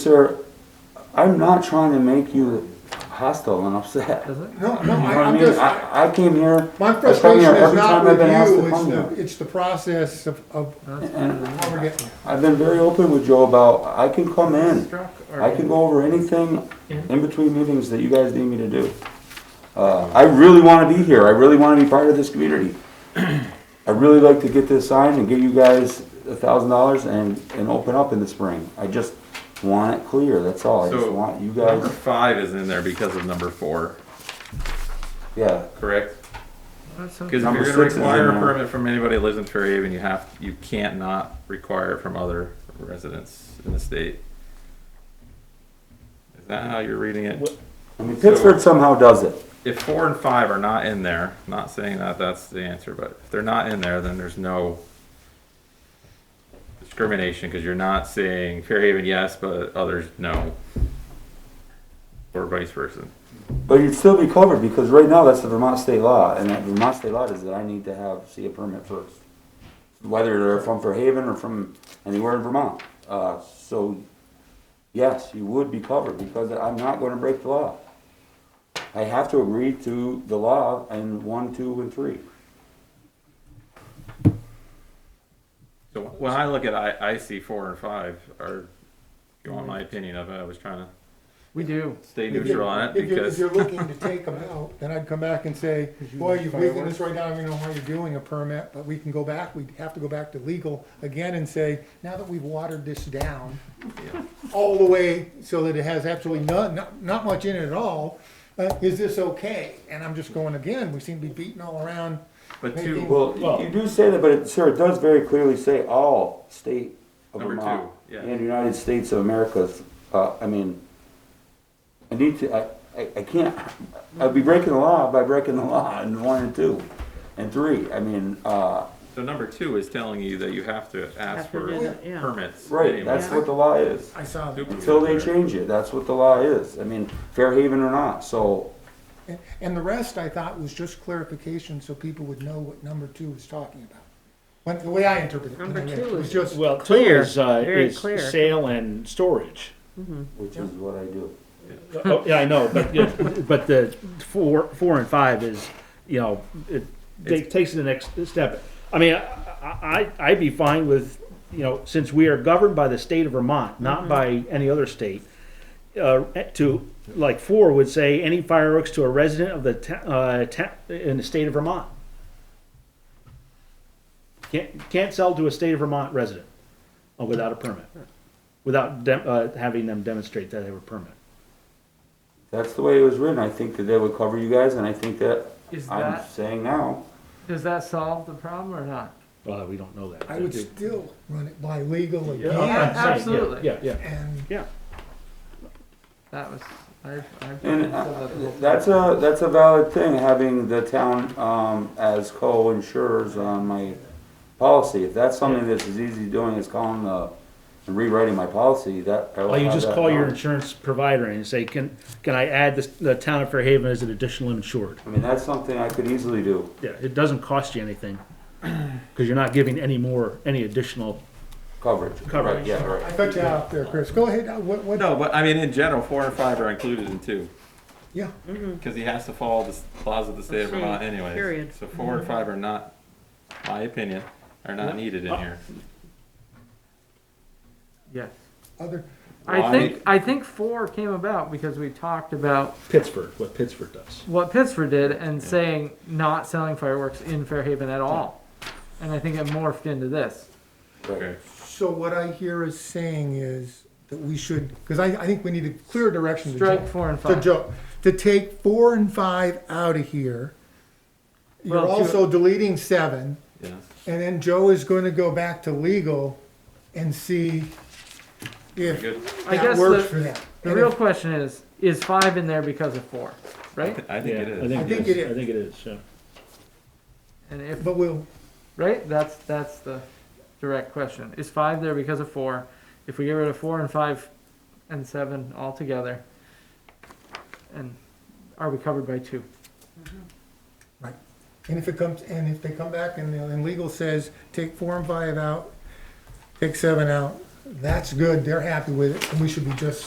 Sir, I'm not trying to make you hostile and upset. You No, no, know I- what I I'm mean? just, I, I came here. my I've come frustration here is every not time I've with been asked you, to it's come the, here. it's the process of, of how we're getting there. I've been very open with Joe about, I can come in. I can go over anything in between meetings that you guys need me to do. Uh, I really wanna be here. I really wanna be part of this community. I'd really like to get this signed and give you guys a thousand dollars and, and open up in the spring. I just want it clear, that's all. I just So- want you Number guys, five is in there because of number four, yeah. correct? Because if Number you're gonna six is in require a there. permit from anybody that lives in Fairhaven, you have, you can't not require it from other residents in the state. Is that how you're reading it? I mean, Pittsburgh somehow does it. If four and five are not in there, not saying that that's the answer, but if they're not in there, then there's no discrimination, because you're not saying Fairhaven yes, but others no. Or vice versa. But you'd still be covered because right now that's the Vermont state law, and that Vermont state law is that I need to have see a permit first, whether they're from Fairhaven or from anywhere in Vermont. Uh, so, yes, you would be covered because I'm not going to break the law. I have to agree to the law in one, two, and three. So when I look at I, I see four and five are, if you want my opinion of it, I was trying to We do. stay neutral on it If you're, if because, you're looking to take them out, then I'd come back and say, boy, you've weakened us right now, I don't know why you're doing a permit, but we can go back, we'd have to go back to legal again and say, now that we've watered this down yeah. all the way so that it has absolutely none, not, not much in it at all, uh, is this okay? And I'm just going again, we seem to be beating all around. but two, Well, you- you do say that, but it, sir, it does very clearly say all state of Number Vermont two, yeah. and United States of America's. Uh, I mean, I need to. I, I, I can't. I'd be breaking the law by breaking the law in one and two, and three. I mean, uh, so number two is telling you that you have to ask Have to for do that, yeah. permits. right. anyway. That's what the law is. I saw that. Until they change it, that's what the law is. I mean, Fairhaven or not. So And- And the rest, I thought, was just clarification so people would know what number two was talking about. When, the way I interpreted it. when I Number read it, two was is- just, Well, two Clear, is, uh, very is clear. sale and storage. which is what I do. Oh, yeah, I know, but, yeah, but the four, four and five is, you know, it ta- takes the next step. I mean, I, I, I'd be fine with, you know, since we are governed by the state of Vermont, not by any other state, uh, to, like, four would say, any fireworks to a resident of the, ta- uh, ta- in the state of Vermont. Can't, can't sell to a state of Vermont resident uh, without a permit, without dem- uh, having them demonstrate that they have a permit. That's the way it was written. I think that they would cover you guys, and I think that Is I'm that, saying now. does that solve the problem or not? Well, we don't know that. I would still run it by legal Yeah, I'm- again, I'm saying, yeah, absolutely. Yeah, yeah, and yeah. That was, I, I. And uh, that's a, that's a valid thing, having the town, um, as co-insurers on my policy. If that's something that's as easy doing as calling the, and rewriting my policy, that. I will Well, Oh, you have just that call your knowledge. insurance provider and say, can, can I add this, the town of Fairhaven as an additional insured? I mean, that's something I could easily do. Yeah, it doesn't cost you anything, because you're not giving any more, any additional. Coverage. Coverage. Right, Yeah, I right. cut you out there, Chris. Go ahead, uh, what, what, No, but I mean, in general, four and five are included in two, yeah, because he has to follow the s- laws of the state of Okay, Vermont anyway. period. So four and five are not, my opinion, are not needed in here. Yes. other, Well, I I think, mean- I think four came about because we talked about Pittsburgh, what Pittsburgh does. what Pittsburgh did and saying not selling fireworks in Fairhaven at all. And I think it morphed into this. Okay. so what I hear is saying is that we should, because I, I think we need a clear direction to Joe. Strike four and To five. Joe, to take four and five out of here. You're Well, to- also deleting seven. Yes. And then Joe is going to go back to legal and see if Good. I that guess works the, for them. the real question is, is five in there because of four, right? I think it Yeah, is. I think it is. I think it is, yeah. And if, But we'll, right, that's, that's the direct question. Is five there because of four? If we get rid of four and five and seven altogether, and are we covered by two? and if it comes, and if they come back and, and legal says, take four and five out, take seven out, that's good, they're happy with it, and we should be just